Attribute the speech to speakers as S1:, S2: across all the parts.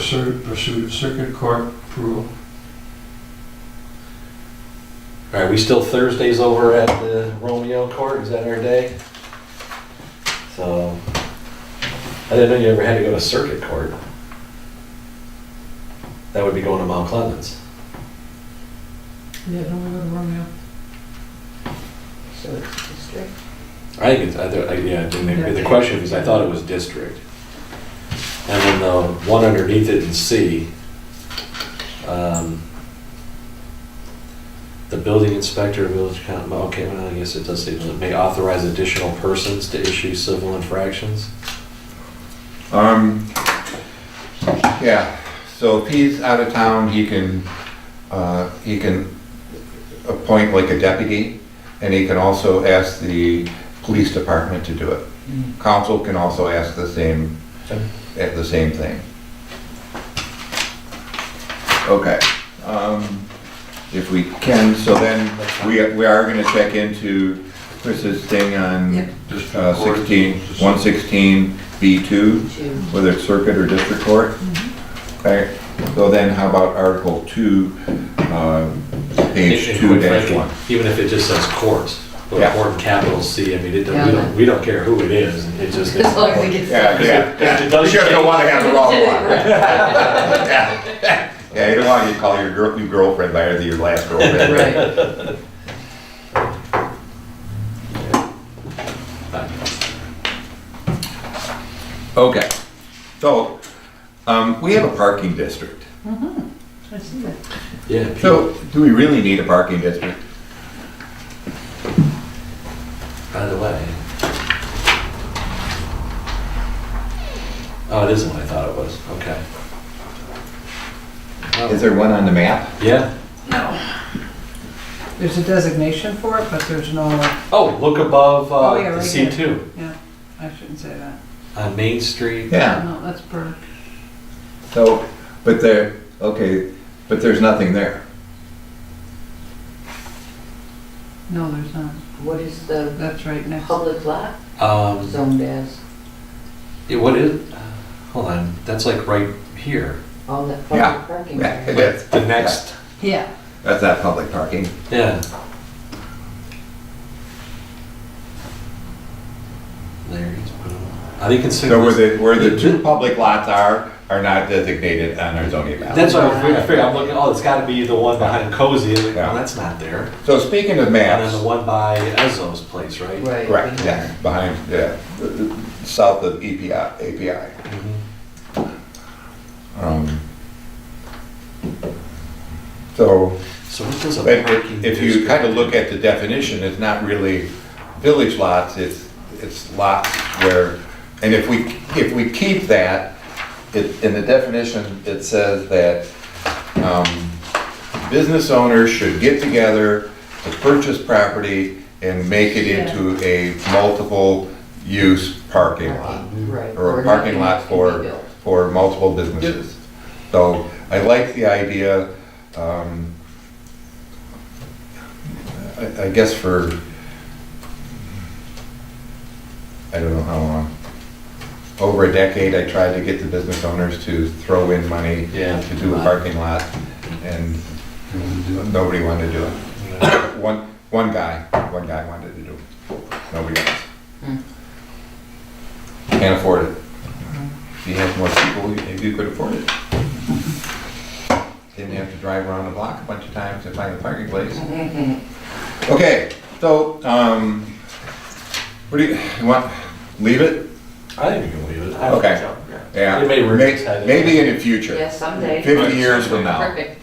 S1: pursuit, pursuit circuit court approval.
S2: All right, we still Thursdays over at the Romeo Court, is that our day? So, I didn't know you ever had to go to circuit court. That would be going to Mount Clemens.
S3: Yeah, don't we go to Romeo?
S4: So it's district.
S2: I think it's, I, thought- I- yeah, and the, the question is, I thought it was district. And then the one underneath it in C, um, the building inspector, village council, okay, well, I guess it does say, may authorize additional persons to issue civil infractions.
S5: Um, yeah, so if he's out of town, he can, uh, he can appoint like a deputy, and he can also ask the police department to do it. Council can also ask the same,
S2: Okay.
S5: at the same thing. Okay, um, if we can, so then, we, we are gonna check into Chris's thing on
S3: Yep.
S1: District
S5: uh,
S1: court.
S5: 16, 116 B2,
S4: Two.
S5: whether it's circuit or district court. Okay, so then how about Article 2, um, page
S2: And quite
S5: 2 dash
S2: frankly,
S5: 1?
S2: Even if it just says court, with
S5: Yeah.
S2: court in capital C, I mean, it, don't-
S3: Yeah.
S2: we don't, we don't care who it is, it just.
S3: As long as it gets.
S5: Yeah, yeah, yeah.
S2: It does
S5: You just don't
S2: change.
S5: want to have the wrong one.
S3: Right.
S5: Yeah, Yeah, you don't want you to call your girl, your girlfriend by your last girlfriend, right?
S3: Right.
S5: Okay, so, um, we have a parking district.
S4: I see that.
S2: Yeah. P-
S5: So, do we really need a parking district?
S2: By the way. Oh, it is what I thought it was, okay.
S5: Is there one on the map?
S2: Yeah,
S4: There's a designation for it, but there's no,
S2: oh, look above,
S4: Oh, yeah,
S2: uh,
S4: right
S2: C two,
S4: yeah, I shouldn't say that.
S2: on Main Street.
S5: Yeah,
S4: No, that's per,
S5: so, but there, okay, but there's nothing there.
S4: no, there's not.
S6: What is the
S4: That's right next.
S6: public lot
S2: Um,
S6: zoned as?
S2: yeah, what is, uh, hold on, that's like right here,
S6: All that
S5: Yeah.
S6: public parking
S5: Yeah,
S6: area?
S5: it is.
S2: the next,
S4: Yeah,
S5: That's not public parking.
S2: yeah. Larry's, I think consider.
S5: So where the, where the two
S2: Th-
S5: public lots are, are not designated on our zoning map.
S2: That's why I fig- I figured, I'm looking, oh, it's gotta be the one behind Cozy, and,
S5: Yeah.
S2: well, that's not there.
S5: So speaking of
S2: And then the
S5: maps,
S2: one by Ezzo's place, right?
S6: Right.
S5: correct, yeah, behind, yeah, south of E EPI, API.
S2: Mhm.
S5: Um, So,
S2: So what does a
S5: but
S2: parking?
S5: if you kind of look at the definition, it's not really village lots, it's, it's lots where, and if we, if we keep that, it, in the definition, it says that, um, business owners should get together to purchase property and make it into a multiple-use parking lot
S6: Right.
S5: or a parking lot for, for multiple businesses. So I like the idea, um, I, I guess for, I don't know how long, over a decade, I tried to get the business owners to throw in money
S2: Yeah.
S5: to do a parking lot, and nobody wanted to do it. One, one guy, one guy wanted to do it, nobody else.
S6: Hmm.
S5: Can't afford it.
S6: Hmm.
S5: If you had more people, you- maybe you could afford it. Didn't have to drive around the block a bunch of times to find a parking place. Okay, so, um, what do you, you want, leave it?
S2: I think you can leave it. I
S5: Okay.
S2: don't know.
S5: Yeah.
S2: It may work.
S5: May- Maybe in the future,
S6: Yeah, someday.
S5: fifty years from now.
S6: Perfect.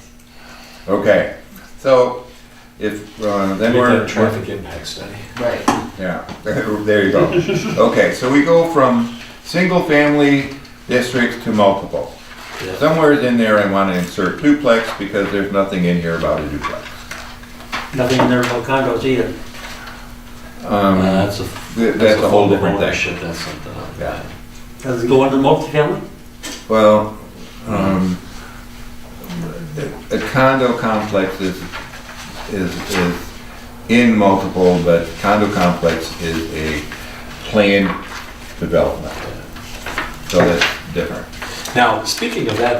S5: Okay, so if, uh, then
S2: Maybe
S5: we're.
S2: that Traffic impact study.
S6: Right.
S5: Yeah, there you go. Okay, so we go from single-family districts to multiple.
S2: Yeah.
S5: Somewhere in there, I want to insert duplex because there's nothing in here about a duplex.
S7: Nothing in there about condos either.
S2: Uh,
S5: Um,
S2: That's a,
S5: th-
S2: that's a whole different
S5: thing.
S2: ownership, that's something else.
S5: Yeah.
S7: Does it go under multifamily?
S5: Well, um, a a condo complex is, is, is in multiple, but condo complex is a planned development. So that's different.
S2: Now, speaking of that